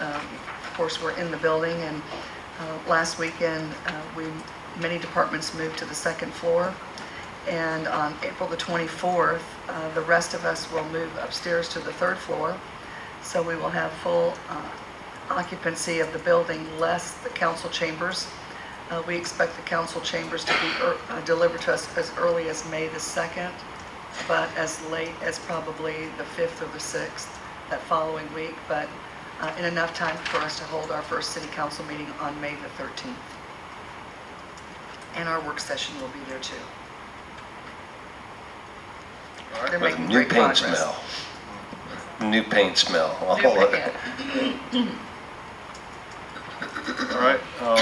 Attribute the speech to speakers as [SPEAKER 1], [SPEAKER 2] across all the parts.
[SPEAKER 1] Um, course, we're in the building, and uh, last weekend, uh, we, many departments moved to the second floor, and on April the 24th, uh, the rest of us will move upstairs to the third floor, so we will have full uh, occupancy of the building, less the council chambers. Uh, We expect the council chambers to be er- uh, delivered to us as early as May the 2nd, but as late as probably the 5th or the 6th that following week, but uh, in enough time for us to hold our first city council meeting on May the 13th. And our work session will be there too.
[SPEAKER 2] All right.
[SPEAKER 1] They're
[SPEAKER 3] With
[SPEAKER 1] making
[SPEAKER 3] new
[SPEAKER 1] great
[SPEAKER 3] paint
[SPEAKER 1] progress.
[SPEAKER 3] smell. New paint smell. All
[SPEAKER 1] New
[SPEAKER 3] of
[SPEAKER 1] paint.
[SPEAKER 3] it.
[SPEAKER 2] All right, um,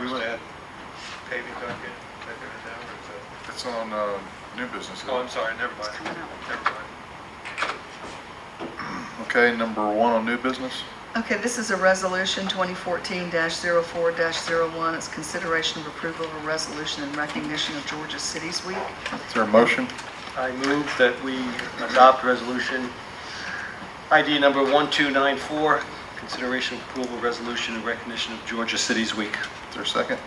[SPEAKER 2] we went ahead,
[SPEAKER 4] paving docket, that there is now, or is that-
[SPEAKER 2] it's on, um, new business. isn't it?
[SPEAKER 4] Oh, I'm sorry, never mind,
[SPEAKER 1] coming out.
[SPEAKER 4] never mind.
[SPEAKER 2] Okay, number one on new business?
[SPEAKER 1] Okay, this is a resolution 2014-04-01. It's consideration of approval of a resolution in recognition of Georgia Cities Week.
[SPEAKER 2] Is there a motion?
[SPEAKER 5] I move that we adopt resolution ID number 1294, consideration of approval resolution in recognition of Georgia Cities Week.
[SPEAKER 2] Is there a second?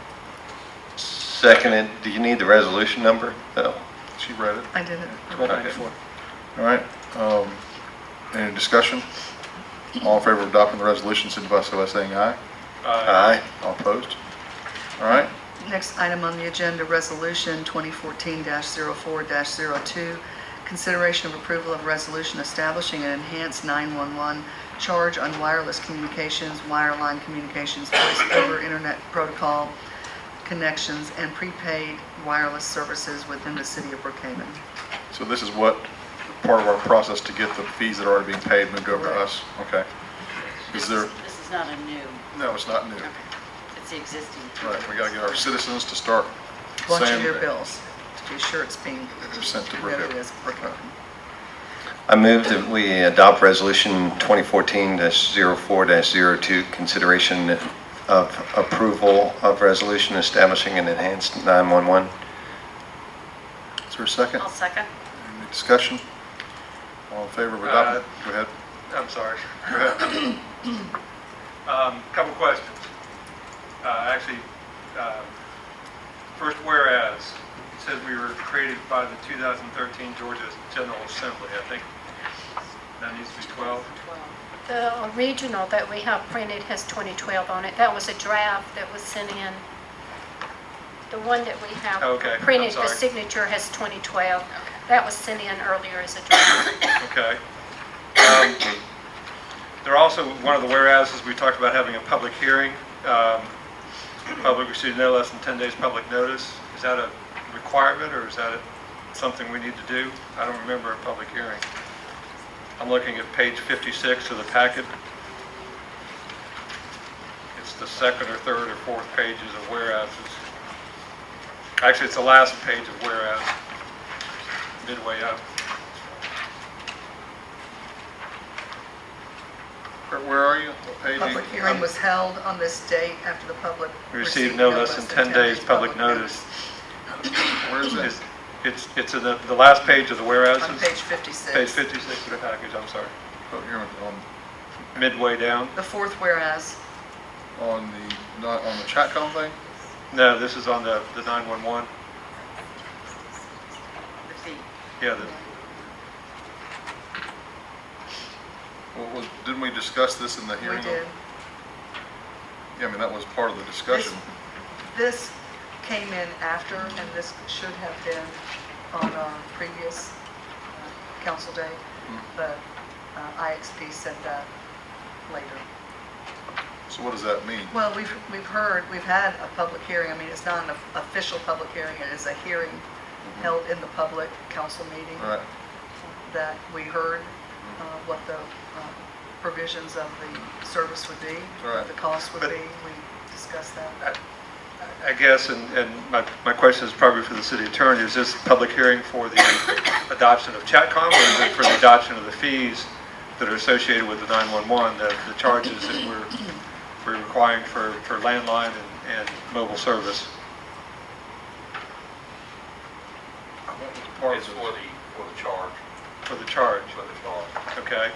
[SPEAKER 3] Seconded, do you need the resolution number? No.
[SPEAKER 2] She read it.
[SPEAKER 1] I did it.
[SPEAKER 5] 1294.
[SPEAKER 2] All right, um, any discussion? All in favor of adopting the resolution, signify so by saying aye.
[SPEAKER 4] Uh,
[SPEAKER 3] Aye.
[SPEAKER 2] All opposed? All right,
[SPEAKER 1] Next item on the agenda, Resolution 2014-04-02, consideration of approval of resolution establishing an enhanced 911 charge on wireless communications, wireline communications, voice over internet protocol connections, and prepaid wireless services within the city of Brookhaven.
[SPEAKER 2] so this is what, part of our process to get the fees that are already being paid moved over to us? Okay. Is there,
[SPEAKER 6] This is not a new,
[SPEAKER 2] no, it's not new.
[SPEAKER 6] okay, it's the existing.
[SPEAKER 2] Right, we gotta get our citizens to start
[SPEAKER 1] Watch your
[SPEAKER 2] saying,
[SPEAKER 1] bills to be sure it's being,
[SPEAKER 2] sent to
[SPEAKER 1] that it
[SPEAKER 2] Brookhaven.
[SPEAKER 1] is Brookhaven.
[SPEAKER 3] I move that we adopt resolution 2014-04-02, consideration of approval of resolution establishing an enhanced 911.
[SPEAKER 2] Is there a second?
[SPEAKER 6] I'll second.
[SPEAKER 2] Any discussion? All in favor of
[SPEAKER 7] Uh,
[SPEAKER 2] adopting? Go ahead.
[SPEAKER 4] I'm sorry. Um, Couple questions. Uh, Actually, um, first whereas, it says we were created by the 2013 Georgia General Assembly. I think that needs to be 12.
[SPEAKER 8] The original that we have printed has 2012 on it. That was a draft that was sent in. The one that we
[SPEAKER 4] Okay, I'm
[SPEAKER 8] have printed for
[SPEAKER 4] sorry.
[SPEAKER 8] signature has 2012. That was sent in earlier as a draft.
[SPEAKER 4] Okay. Um, There are also, one of the whereases, we talked about having a public hearing. Um, Public received no less than 10 days public notice. Is that a requirement, or is that a- something we need to do? I don't remember a public hearing. I'm looking at page 56 of the packet. It's the second or third or fourth pages of whereases. Actually, it's the last page of whereas, midway up.
[SPEAKER 2] Where- Where are you? What page?
[SPEAKER 1] Public hearing was held on this date after the public
[SPEAKER 4] We Received no less than 10 days public notice.
[SPEAKER 2] Where is it?
[SPEAKER 4] It's, it's- it's in the, the last page of the whereas,
[SPEAKER 1] On page 56.
[SPEAKER 4] page 56 of the package, I'm sorry,
[SPEAKER 2] Public hearing Oh, on,
[SPEAKER 4] midway down.
[SPEAKER 1] The fourth whereas.
[SPEAKER 2] on the, not on the chat com thing?
[SPEAKER 4] No, this is on the, the 911,
[SPEAKER 6] The fee.
[SPEAKER 4] yeah, the-
[SPEAKER 2] Well, was- didn't we discuss this in the
[SPEAKER 1] We
[SPEAKER 2] hearing?
[SPEAKER 1] did.
[SPEAKER 2] Yeah, I mean, that was part of the discussion.
[SPEAKER 1] This came in after, and this should have been on our previous uh, council day,
[SPEAKER 2] Hmm.
[SPEAKER 1] but uh, IXP said that later.
[SPEAKER 2] So what does that mean?
[SPEAKER 1] Well, we've, we've heard, we've had a public hearing, I mean, it's not an official public hearing, it is a hearing held in the public council meeting.
[SPEAKER 2] All Mm-hmm. right,
[SPEAKER 1] that we heard uh, what the uh, provisions of the service would be,
[SPEAKER 2] Right.
[SPEAKER 1] what the cost would
[SPEAKER 4] But-
[SPEAKER 1] be. We discussed that.
[SPEAKER 4] I guess, and, and my, my question is probably for the city attorney, is this public hearing for the adoption of Chatcom, or is it for the adoption of the fees that are associated with the 911, the, the charges that we're, we're requiring for, for landline and, and mobile service?
[SPEAKER 2] What was part of
[SPEAKER 7] It's for
[SPEAKER 2] it?
[SPEAKER 7] the, for the charge,
[SPEAKER 4] For the charge,
[SPEAKER 7] for the charge.
[SPEAKER 4] okay?